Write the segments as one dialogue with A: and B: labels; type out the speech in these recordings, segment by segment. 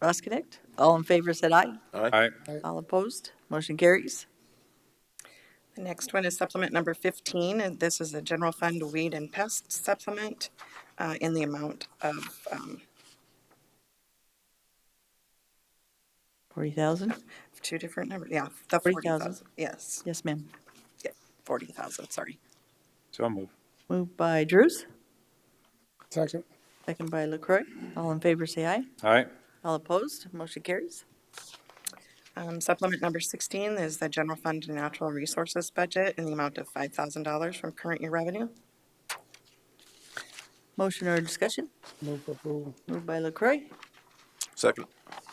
A: Ross Connect. All in favor said aye.
B: Aye.
A: All opposed, motion carries.
C: The next one is supplement number fifteen, and this is a general fund weed and pest supplement, uh, in the amount of, um,
A: Forty thousand?
C: two different numbers, yeah, the forty
A: 40,000.
C: thousand, yes,
A: Yes, ma'am.
C: forty thousand, sorry.
B: So move.
A: Moved by Drews,
D: Second.
A: second by LaCroy. All in favor say aye.
B: Aye.
A: All opposed, motion carries.
C: Um, supplement number sixteen is the general fund and natural resources budget in the amount of five thousand dollars from current year revenue.
A: Motion or discussion?
D: Move for approval.
A: Moved by LaCroy,
E: Second.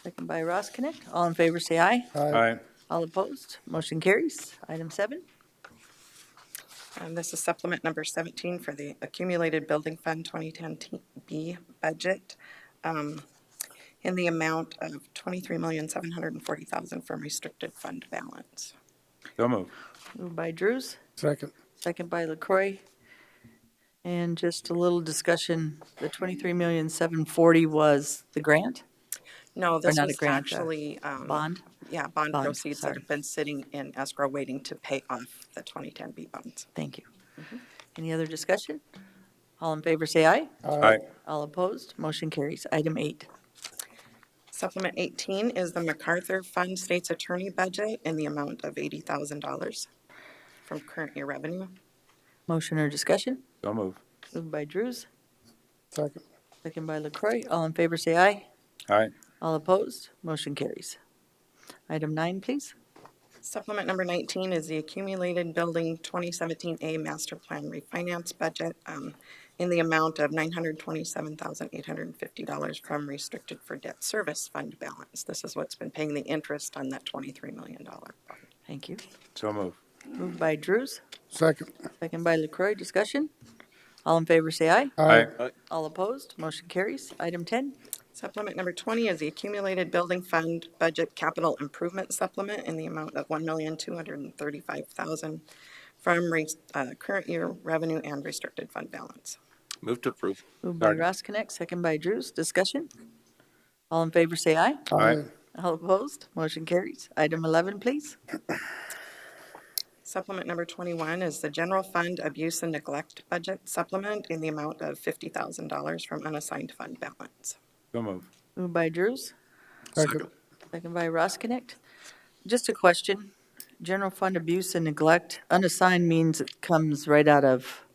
A: second by Ross Connect. All in favor say aye.
B: Aye.
A: All opposed, motion carries. Item seven,
C: Um, this is supplement number seventeen for the accumulated building fund twenty ten B budget. Um, in the amount of twenty-three million, seven hundred and forty thousand from restricted fund balance.
B: So move.
A: moved by Drews,
D: Second.
A: second by LaCroy. And just a little discussion, the twenty-three million, seven forty was the grant
C: No, this
A: not a
C: was
A: grant, uh,
C: actually, um.
A: bond?
C: Yeah, bond
A: Bond,
C: proceeds that
A: sorry.
C: have been sitting in escrow waiting to pay off the twenty ten B bonds.
A: Thank you. Any other discussion? All in favor, say aye.
B: Aye.
A: All opposed, motion carries. Item eight,
C: Supplement eighteen is the MacArthur Fund State's Attorney Budget in the amount of eighty thousand dollars from current year revenue.
A: motion or discussion?
B: So move.
A: Moved by Drews,
D: Second.
A: second by LaCroy. All in favor, say aye.
B: Aye.
A: All opposed, motion carries. Item nine, please.
C: Supplement number nineteen is the Accumulated Building twenty seventeen A Master Plan Refinance Budget um, in the amount of nine hundred twenty-seven thousand eight hundred and fifty dollars from restricted for debt service fund balance. This is what's been paying the interest on that twenty-three million dollar bond.
A: Thank you.
B: So move.
A: Moved by Drews,
D: Second.
A: second by LaCroy. Discussion? All in favor, say aye. All opposed, motion carries. Item 10,
C: Supplement number 20 is the Accumulated Building Fund Budget Capital Improvement Supplement in the amount of $1,235,000 from re- uh, current year revenue and restricted fund balance.
E: Move to approve.
A: moved by
B: Second.
A: Ross Connect, second by Drews. Discussion? All in favor, say aye.
B: Aye.
A: All opposed, motion carries. Item 11, please.
C: Supplement number 21 is the General Fund Abuse and Neglect Budget Supplement in the amount of $50,000 from unassigned fund balance.
B: So move.
A: Moved by Drews,
D: Second.
A: second by Ross Connect. Just a question, general fund abuse and neglect, unassigned means it comes right out of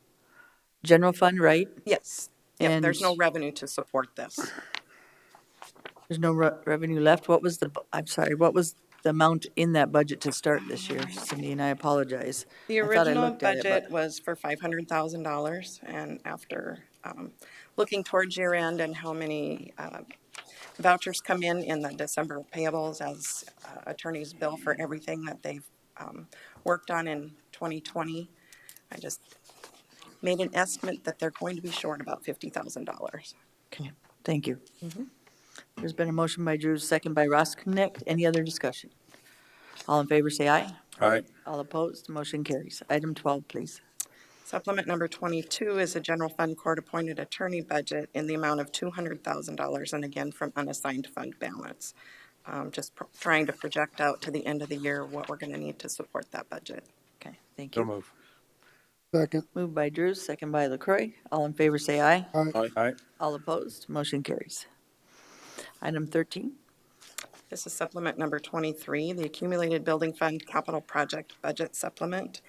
A: general fund, right?
C: Yes. Yep, there's no
A: And-
C: revenue to support this.
A: There's no re- revenue left. What was the, bu- I'm sorry, what was the amount in that budget to start this year, Cindy, and I apologize.
C: The
A: I thought I
C: original
A: looked at it, but-
C: budget was for five hundred thousand dollars, and after um, looking towards year end and how many uh, vouchers come in in the December payables as uh, attorneys bill for everything that they've um, worked on in twenty twenty, I just made an estimate that they're going to be short about fifty thousand dollars.
A: Okay, thank you.
C: Mm-hmm.
A: There's been a motion by Drews, second by Ross Connect. Any other discussion? All in favor, say aye.
B: Aye.
A: All opposed, motion carries. Item 12, please.
C: Supplement number twenty-two is a general fund court-appointed attorney budget in the amount of two hundred thousand dollars, and again, from unassigned fund balance. Um, just pro- trying to project out to the end of the year what we're gonna need to support that budget.
A: Okay, thank
B: So
A: you.
B: move.
D: Second.
A: Moved by Drews, second by LaCroy. All in favor, say aye.
D: Aye.
B: Aye.
A: All opposed, motion carries. Item 13,
C: This is supplement number twenty-three, the accumulated building fund capital project budget supplement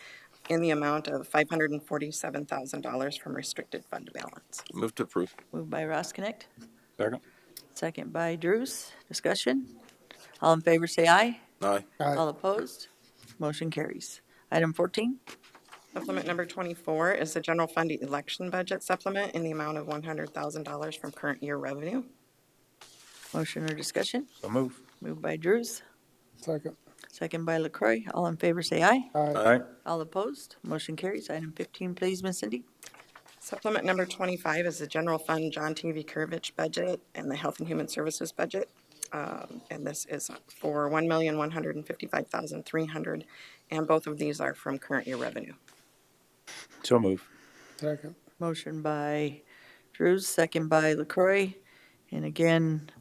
C: in the amount of five hundred and forty-seven thousand dollars from restricted fund balance.
E: Move to approve.
A: moved by Ross Connect,
B: Second.
A: second by Drews. Discussion? All in favor, say aye.
E: Aye.
A: All
D: Aye.
A: opposed, motion carries. Item 14,
C: Supplement number twenty-four is the general fund election budget supplement in the amount of one hundred thousand dollars from current year revenue.
A: motion or discussion?
B: So move.
A: Moved by Drews,
D: Second.
A: Second by LaCroy. All in favor, say aye.
D: Aye.
B: Aye.
A: All opposed, motion carries. Item 15, please, Miss Cindy.
C: Supplement number 25 is the general fund John T. V. Kirkovich budget and the Health and Human Services budget. Um, And this is for $1,155,300, and both of these are from current year revenue.
B: So move.
D: Second.
A: Motion by Drews, second by LaCroy. And again,